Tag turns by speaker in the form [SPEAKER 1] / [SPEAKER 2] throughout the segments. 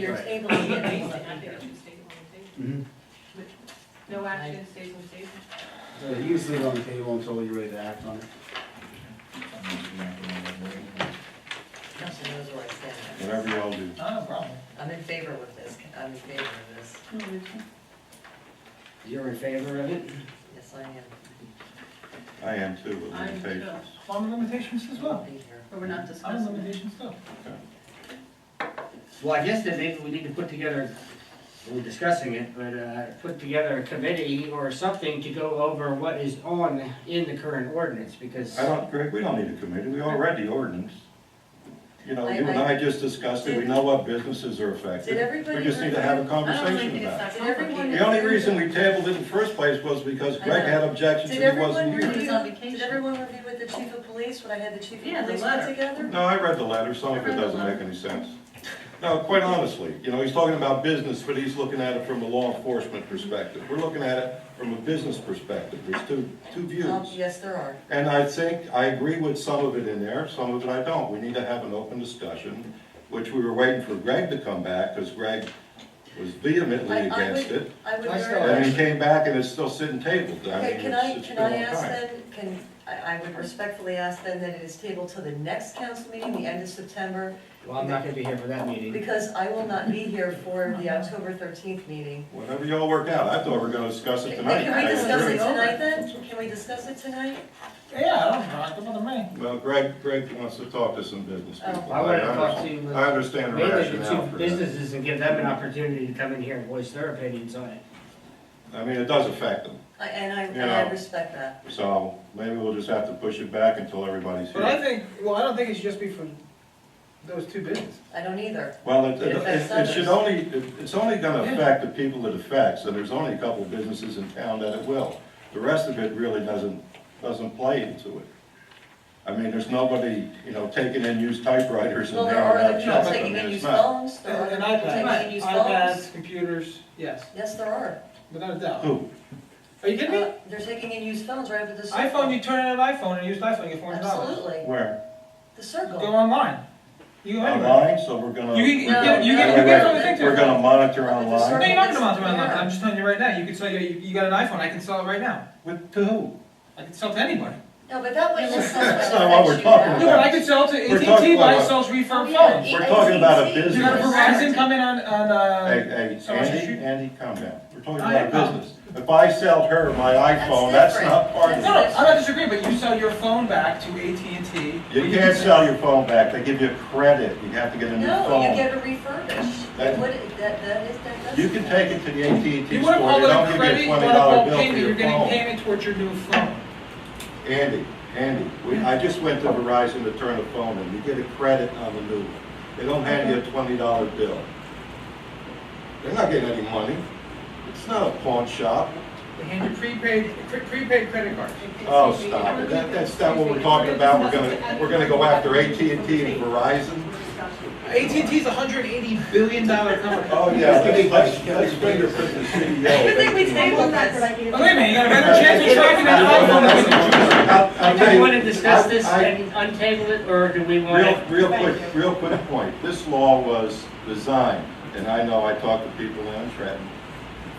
[SPEAKER 1] You're
[SPEAKER 2] Right.
[SPEAKER 1] tabling it, I think it should stay on
[SPEAKER 2] Mhm.
[SPEAKER 1] the table.
[SPEAKER 3] Mm-hmm.
[SPEAKER 1] No action stays on the table.
[SPEAKER 2] So you just leave it on the table until you're ready to act on it.
[SPEAKER 4] Council knows where I stand.
[SPEAKER 3] Whatever y'all do.
[SPEAKER 4] Not a problem. I'm in favor with this, I'm in favor of this,
[SPEAKER 2] You're in favor of it?
[SPEAKER 4] yes, I am.
[SPEAKER 3] I am too, with
[SPEAKER 1] I'm
[SPEAKER 3] limitations.
[SPEAKER 5] On limitations as
[SPEAKER 4] I'll
[SPEAKER 5] well,
[SPEAKER 4] be here.
[SPEAKER 1] But we're not
[SPEAKER 5] on
[SPEAKER 1] discussing it.
[SPEAKER 5] limitations though.
[SPEAKER 6] Well, I guess that maybe we need to put together, we're discussing it, but, uh, put together a committee or something to go over what is on in the current ordinance, because.
[SPEAKER 3] I don't, Greg, we don't need a committee, we all read the ordinance. You know, you and I just discussed it, we know what businesses are
[SPEAKER 4] Did
[SPEAKER 3] affected.
[SPEAKER 4] everybody?
[SPEAKER 3] We just need to
[SPEAKER 4] read
[SPEAKER 3] have
[SPEAKER 4] it?
[SPEAKER 3] a
[SPEAKER 1] I don't think
[SPEAKER 3] conversation
[SPEAKER 1] it's
[SPEAKER 3] about it.
[SPEAKER 1] that complicated.
[SPEAKER 3] The only reason we tabled it in the first place was because Greg had objections
[SPEAKER 4] Did
[SPEAKER 3] and he
[SPEAKER 4] everyone
[SPEAKER 3] wasn't
[SPEAKER 4] review,
[SPEAKER 3] here.
[SPEAKER 1] He was on
[SPEAKER 4] did
[SPEAKER 1] vacation.
[SPEAKER 4] everyone review with the chief of police when I had the chief
[SPEAKER 1] Yeah,
[SPEAKER 4] of
[SPEAKER 1] the
[SPEAKER 4] police put
[SPEAKER 1] letter.
[SPEAKER 4] together?
[SPEAKER 3] No, I read the letter, some
[SPEAKER 1] I
[SPEAKER 3] of
[SPEAKER 1] read
[SPEAKER 3] it
[SPEAKER 1] the
[SPEAKER 3] doesn't make
[SPEAKER 1] letter.
[SPEAKER 3] any sense. No, quite honestly, you know, he's talking about business, but he's looking at it from a law enforcement perspective. We're looking at it from a business perspective, there's two, two
[SPEAKER 4] Um,
[SPEAKER 3] views.
[SPEAKER 4] yes, there are.
[SPEAKER 3] And I think, I agree with some of it in there, some of it I don't. We need to have an open discussion, which we were waiting for Greg to come back, because Greg was vehemently
[SPEAKER 4] I- I
[SPEAKER 3] against
[SPEAKER 4] would-
[SPEAKER 3] it.
[SPEAKER 4] I would
[SPEAKER 6] I
[SPEAKER 4] very
[SPEAKER 6] saw
[SPEAKER 3] And
[SPEAKER 4] much.
[SPEAKER 3] he came back and it's still sitting tabled. I
[SPEAKER 4] Okay,
[SPEAKER 3] mean,
[SPEAKER 4] can I,
[SPEAKER 3] it's, it's
[SPEAKER 4] can
[SPEAKER 3] been
[SPEAKER 4] I
[SPEAKER 3] a long
[SPEAKER 4] ask
[SPEAKER 3] time.
[SPEAKER 4] then, can, I, I would respectfully ask then that it is tabled till the next council meeting, the end of September,
[SPEAKER 6] Well, I'm not gonna be here for that meeting.
[SPEAKER 4] because I will not be here for the October thirteenth meeting.
[SPEAKER 3] Whatever y'all work out, I thought we were gonna discuss it
[SPEAKER 4] Can
[SPEAKER 3] tonight.
[SPEAKER 4] can we discuss it
[SPEAKER 3] I agree.
[SPEAKER 4] tonight then? Can we discuss it tonight?
[SPEAKER 5] Yeah, I don't, know, I don't bother me.
[SPEAKER 3] Well, Greg, Greg wants to talk to some business
[SPEAKER 4] Oh.
[SPEAKER 3] people.
[SPEAKER 6] I wanna talk
[SPEAKER 3] understand-
[SPEAKER 6] to-
[SPEAKER 3] I understand the
[SPEAKER 6] Mainly the
[SPEAKER 3] rationale
[SPEAKER 6] two
[SPEAKER 3] for that.
[SPEAKER 6] businesses and give them an opportunity to come in here and voice their opinions on it.
[SPEAKER 3] I mean, it does affect them,
[SPEAKER 4] I- And I, and I
[SPEAKER 3] Yeah.
[SPEAKER 4] respect that.
[SPEAKER 3] so maybe we'll just have to push it back until everybody's
[SPEAKER 5] But I
[SPEAKER 3] here.
[SPEAKER 5] think, well, I don't think it should just be for those two businesses.
[SPEAKER 4] I don't either.
[SPEAKER 3] Well, it,
[SPEAKER 4] It
[SPEAKER 3] it,
[SPEAKER 4] affects
[SPEAKER 3] it- it
[SPEAKER 4] others.
[SPEAKER 3] should only, it- it's only gonna affect the people it affects, and there's only a couple businesses in town that it will. The rest of it really doesn't, doesn't play into it. I mean, there's nobody, you know, taking in used typewriters
[SPEAKER 4] Well,
[SPEAKER 3] and they
[SPEAKER 4] there are
[SPEAKER 3] are
[SPEAKER 4] other
[SPEAKER 3] out
[SPEAKER 4] people
[SPEAKER 3] shopping.
[SPEAKER 4] taking
[SPEAKER 3] I
[SPEAKER 4] in
[SPEAKER 3] mean, it's
[SPEAKER 4] used
[SPEAKER 3] not.
[SPEAKER 4] phones, there are
[SPEAKER 5] And
[SPEAKER 4] other people taking in
[SPEAKER 5] iPads,
[SPEAKER 4] used phones.
[SPEAKER 5] iPads, computers, yes,
[SPEAKER 4] Yes, there are.
[SPEAKER 5] without a doubt.
[SPEAKER 3] Who?
[SPEAKER 5] Are you kidding me?
[SPEAKER 4] Uh, They're taking in used phones right up at the circle.
[SPEAKER 5] iPhone, you turn in an iPhone and use an iPhone, you get four hundred dollars.
[SPEAKER 4] Absolutely,
[SPEAKER 3] Where?
[SPEAKER 4] the
[SPEAKER 5] Go
[SPEAKER 4] circle.
[SPEAKER 5] online. You go anywhere.
[SPEAKER 3] Online, so we're gonna.
[SPEAKER 5] You can- you
[SPEAKER 3] we're
[SPEAKER 4] can- you
[SPEAKER 3] gonna-
[SPEAKER 4] can-
[SPEAKER 3] wait,
[SPEAKER 4] you can
[SPEAKER 3] wait,
[SPEAKER 4] go
[SPEAKER 5] to
[SPEAKER 3] wait.
[SPEAKER 5] the
[SPEAKER 3] We're gonna monitor
[SPEAKER 4] Look at the
[SPEAKER 3] online.
[SPEAKER 5] No, you're not gonna monitor
[SPEAKER 4] Yeah.
[SPEAKER 5] online, I'm just telling you right now, you could sell, you, you got an iPhone, I can sell it right now.
[SPEAKER 3] With, to who?
[SPEAKER 5] I can sell it to anybody.
[SPEAKER 4] No, but that wouldn't necessarily
[SPEAKER 3] That's not what we're
[SPEAKER 4] affect you
[SPEAKER 3] talking
[SPEAKER 4] now.
[SPEAKER 5] No, but I could sell it to
[SPEAKER 3] We're
[SPEAKER 5] AT&T,
[SPEAKER 3] talking
[SPEAKER 5] but I
[SPEAKER 3] about-
[SPEAKER 5] sells refurb
[SPEAKER 1] Oh, yeah.
[SPEAKER 5] phones.
[SPEAKER 3] We're talking about a
[SPEAKER 1] AT&T.
[SPEAKER 5] You got a
[SPEAKER 3] business.
[SPEAKER 5] Verizon coming on, on,
[SPEAKER 3] Hey,
[SPEAKER 5] uh,
[SPEAKER 3] hey,
[SPEAKER 5] Someone should-
[SPEAKER 3] Andy, Andy, calm down. We're talking
[SPEAKER 5] I
[SPEAKER 3] about a
[SPEAKER 5] am.
[SPEAKER 3] business. If I sell her my iPhone,
[SPEAKER 4] That's
[SPEAKER 3] that's
[SPEAKER 4] different.
[SPEAKER 3] not part of
[SPEAKER 5] no,
[SPEAKER 3] it.
[SPEAKER 5] no, I'm not disagreeing, but you sell your phone back to AT&T.
[SPEAKER 3] You can't sell your phone back. They give you credit. You have to get a new
[SPEAKER 4] No, you
[SPEAKER 3] phone.
[SPEAKER 4] get it refurbished. It
[SPEAKER 3] That-
[SPEAKER 4] would, that, that is, that does.
[SPEAKER 3] You can take it to the AT&T store. They
[SPEAKER 5] You wanna call it
[SPEAKER 3] don't
[SPEAKER 5] a
[SPEAKER 3] give you
[SPEAKER 5] credit,
[SPEAKER 3] a
[SPEAKER 5] you
[SPEAKER 3] twenty
[SPEAKER 5] wanna call
[SPEAKER 3] dollar
[SPEAKER 5] it
[SPEAKER 3] bill for
[SPEAKER 5] payment, you're
[SPEAKER 3] your
[SPEAKER 5] getting
[SPEAKER 3] phone.
[SPEAKER 5] payment towards your new phone.
[SPEAKER 3] Andy, Andy, we, I just went to Verizon to turn a phone in. You get a credit on the new one. They don't hand you a twenty dollar bill. They're not getting any money. It's not a pawn shop.
[SPEAKER 5] They hand you prepaid, pre- prepaid credit cards.
[SPEAKER 3] Oh, stop it. That, that's not what we're talking about. We're gonna, we're gonna go after AT&T and Verizon.
[SPEAKER 5] AT&T's a hundred eighty billion dollar company.
[SPEAKER 3] Oh, yeah, let's, let's, let's fingerprint the E
[SPEAKER 4] Good
[SPEAKER 3] CEO.
[SPEAKER 4] thing we tabled this.
[SPEAKER 5] But wait a minute, you got a better chance of tracking that iPhone.
[SPEAKER 3] I'll- I'll
[SPEAKER 6] Do
[SPEAKER 3] tell
[SPEAKER 6] we
[SPEAKER 3] you-
[SPEAKER 6] wanna discuss this
[SPEAKER 3] I- I-
[SPEAKER 6] and untable it, or do we want
[SPEAKER 3] Real,
[SPEAKER 6] it?
[SPEAKER 3] real quick, real quick point. This law was designed, and I know I talked to people in Trenton,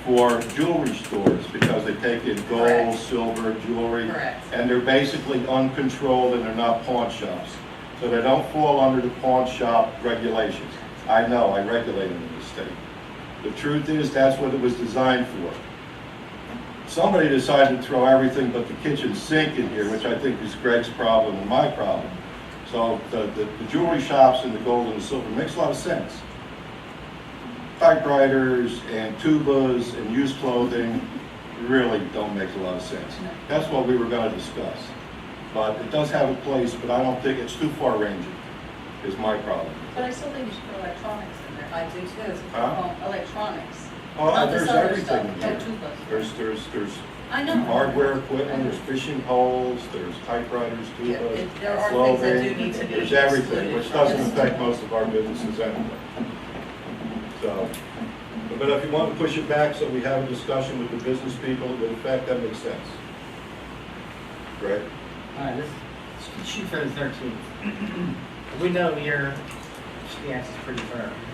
[SPEAKER 3] for jewelry stores because they take in
[SPEAKER 4] Correct.
[SPEAKER 3] gold, silver, jewelry.
[SPEAKER 4] Correct.
[SPEAKER 3] And they're basically uncontrolled and they're not pawn shops. So they don't fall under the pawn shop regulations. I know, I regulate them in the state. The truth is, that's what it was designed for. Somebody decided to throw everything but the kitchen sink in here, which I think is Greg's problem and my problem. So the, the the jewelry shops and the gold and the silver makes a lot of sense. Typewriters and tubas and used clothing really don't make a lot of sense. That's what we were gonna discuss. But it does have a place, but I don't think it's too far ranging, is my problem.
[SPEAKER 1] But I still think you should put electronics in there.
[SPEAKER 4] I do too.
[SPEAKER 3] Huh?
[SPEAKER 1] Oh, Electronics.
[SPEAKER 3] Oh,
[SPEAKER 4] Not this
[SPEAKER 3] there's
[SPEAKER 4] other
[SPEAKER 3] everything in
[SPEAKER 4] stuff.
[SPEAKER 3] there.
[SPEAKER 1] Don't do those.
[SPEAKER 3] There's, there's, there's
[SPEAKER 1] I know.
[SPEAKER 3] hardware equipment, there's fishing poles, there's typewriters,
[SPEAKER 4] Yeah,
[SPEAKER 3] tubas,
[SPEAKER 4] it- There are things that do
[SPEAKER 3] clothing.
[SPEAKER 4] need to be
[SPEAKER 3] There's
[SPEAKER 4] excluded.
[SPEAKER 3] everything, which
[SPEAKER 4] from
[SPEAKER 3] doesn't
[SPEAKER 4] this.
[SPEAKER 3] affect most of our businesses anyway. So, but if you want to push it back so we have a discussion with the business people, it would affect, that makes sense. Right?
[SPEAKER 6] All right, let's let's shoot for the thirteenth. We know your, yes, is pretty firm.